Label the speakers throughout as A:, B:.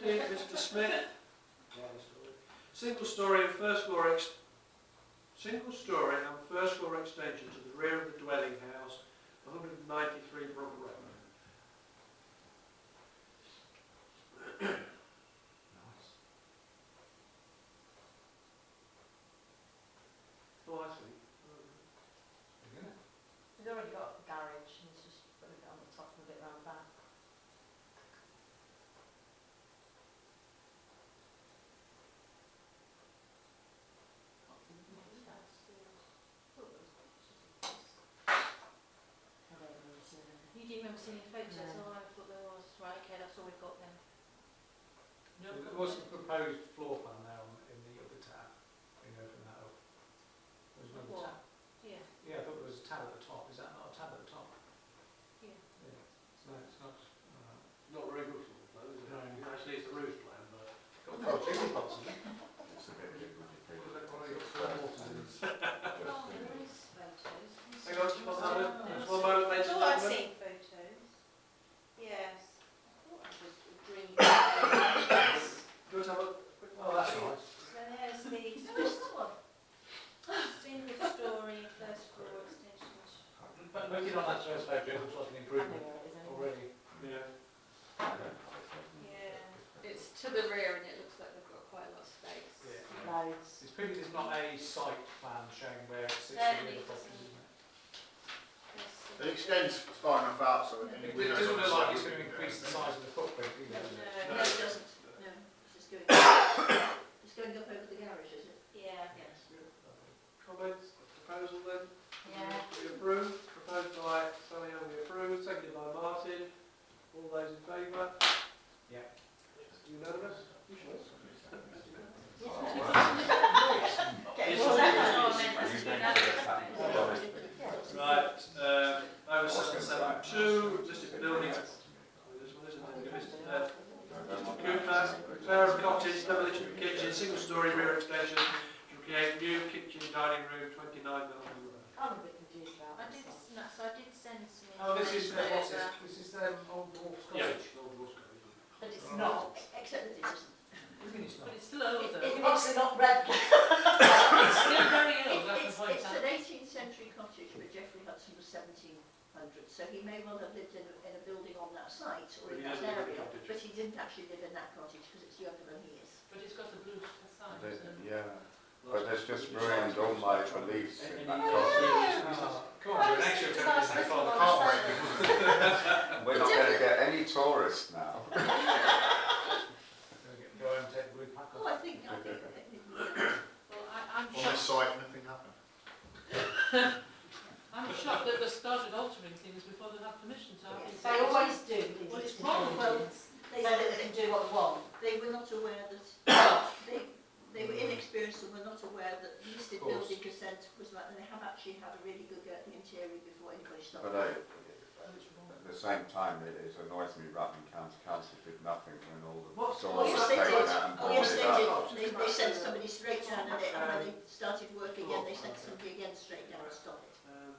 A: Mr Smith, single story and first floor ex, single story and first floor extension to the rear of the dwelling house, 193 Brook Road. Oh, I see.
B: He's already got a garage and he's just put it on the top and a bit round the back. I don't really see them.
C: You didn't remember seeing any photos,
B: No.
C: oh, I thought there was, right, okay, that's all we've got then.
D: uh, What's the proposed floor plan now on- in the upper tab? Can you open that up? There's no
C: What?
D: tab.
C: Yeah,
D: Yeah, I thought there was a tab at the top. Is that not a tab at the top?
C: Yeah.
D: Yeah. So it's not. alright.
A: Not very good for the plan, is it?
D: No.
A: Actually, it's a roof plan, but.
D: Got no chimney pots in it.
C: oh, there is photos.
A: Hang on, just one moment,
C: Oh,
A: just one moment,
C: I
A: ladies and
C: thought I'd
A: gentlemen.
C: seen photos. Yes, I thought I was agreeing. So
A: Do you want to have a quick?
D: Oh, that's
C: there's
D: nice.
C: the first one. Single story, first floor extension.
D: But looking on that first page, it looks like
B: I know
D: an improvement
B: where it is anyway.
D: already.
A: Yeah.
C: Yeah,
E: It's to the rear and it looks like they've got quite a lot of space.
D: Yeah.
B: Loads.
D: It's clearly there's not a site plan showing where it sits
C: No,
D: in the
C: it
D: other properties,
C: doesn't.
D: isn't it?
F: It
C: there's.
F: extends far enough out so any
D: It
F: windows
D: doesn't
F: on
D: look
F: side
D: like it's
F: would
D: going
F: be
D: to increase the
F: there.
D: size of the footprint
C: No,
D: either. does it?
C: no, it doesn't, no, it's just going,
E: It's going up over the garage, is it?
C: yeah.
E: Yes.
A: Comments, proposal then?
C: Yeah.
A: We approve, proposed by Sally Young, we approve, seconded by Martin. All those in favour?
D: Yeah.
A: Unanimous? You sure?
B: Get
A: It's
B: more than
C: Oh, I meant that's unanimous.
A: Right, um, over seven seven two, listed buildings. Oh, This one isn't, it? Listed, uh, Mr Cooper, repair of cottage, demolition of kitchen, single story rear extension to create new kitchen dining room, twenty-nine Melbourne Road.
B: I'm a bit confused about
C: I
B: this
C: did,
B: one.
C: no, so I did send some.
D: Oh, this is,
C: information
D: what's this?
C: over.
D: This is the old wall
A: Yeah.
D: cottage.
B: But it's not.
E: Except that it isn't.
D: What do you mean it's not?
E: it's still older.
B: It's obviously not red.
E: still very old, It's, it's an eighteenth century cottage, but Geoffrey Hudson was seventeen hundred, so he may well have lived in a, in a building on that site or
A: But he
E: in that
A: doesn't live in the
E: area.
A: cottage.
E: But he didn't actually live in that cottage because it's younger than he is.
G: But it's got a blue facade,
H: They-
G: isn't it?
H: Yeah, but that's just ruined all my beliefs in that
D: Ah, Come on, you're an extra
C: It's a
D: turn,
C: nice
D: isn't it?
C: little one, isn't
D: Can't wait.
C: it?
H: cottage. We're not going to get any tourists now.
D: Go home, take the wood pack
E: Oh,
D: off.
E: I think, I think, I think, yeah.
G: Well, I, I'm
F: On this site,
G: shocked,
F: nothing happened.
G: I'm shocked that they started altering things before they had permission to have
E: Yes.
G: it.
B: They always do. these
E: Well, it's
B: technologies.
G: wrong,
E: well,
B: So
E: they,
B: that
E: they,
B: they can do what they want.
E: they were not aware that, they, they were inexperienced and were not aware that listed
D: Of course.
E: building consent was like, and they have actually had a really good go at the interior before anybody started.
H: But uh, I, at the same time, it, it annoys me Rutland County Council did nothing when all the
A: What-
E: Oh,
H: doors
E: yes,
H: were
E: they
H: taken
E: did,
H: out and
E: oh, yes,
H: boarded
E: they
H: up.
E: did, they, they sent somebody straight down and they, and when they started work again, they sent somebody again straight down and stopped it.
H: Um,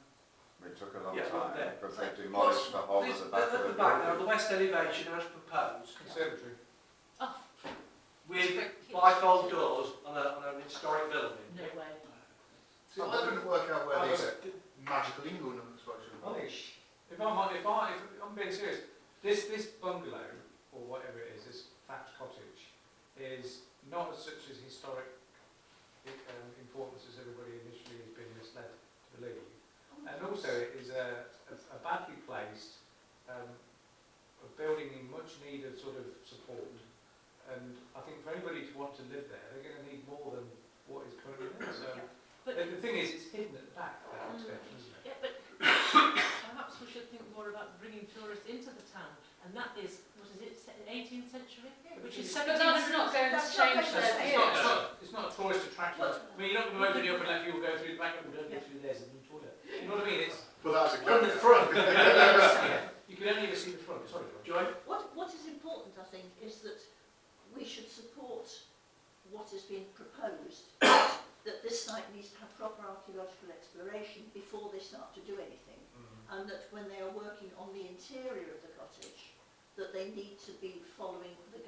H: It took a long
A: Yeah,
H: time
A: there.
H: because they demolished the whole of
A: This,
H: the
A: at the
H: Oh, back of the
A: back now,
H: building.
A: the west elevation as proposed,
D: Conservatory.
G: oh,
A: with bifold doors on, a, on an historic building.
G: No way.
F: I couldn't work out
D: I
F: where
D: was-
F: these magical England numbers
D: I
F: were.
D: think, if I'm, hon- if I, if I'm being serious, this, this bungalow, or whatever it is, this thatched cottage, is not as such as historic i- um, importance as everybody initially has been misled to believe. And also it is a, a, a badly placed, um, a building in much need of sort of support. And I think for anybody to want to live there, they're going to need more than what is currently there. So
G: But-
D: the, the thing is, it's hidden at the back, that
G: Mm.
D: extension, isn't it?
G: Yeah, but perhaps we should think more about bringing tourists into the town, and that is, what is it, se- 18th century? Which is
E: But
G: seventeen
E: that's
G: hundred.
E: not going to
G: That's
E: change
G: not
E: their
G: going to
D: It's
E: view.
G: change.
D: not, it's not, it's not a tourist attraction. I mean, you're not going to open it up and let people go through the back, oh, don't go through there, there's a new toilet. You know what I mean? It's,
F: But that was a
A: On the
F: good.
A: front.
D: yeah, you can only ever see the front, sorry. George.
A: Joy?
E: What, what is important, I think, is that we should support what has been proposed, that this site needs to have proper archaeological exploration before they start to do anything,
D: Mm.
E: and that when they are working on the interior of the cottage, that they need to be following the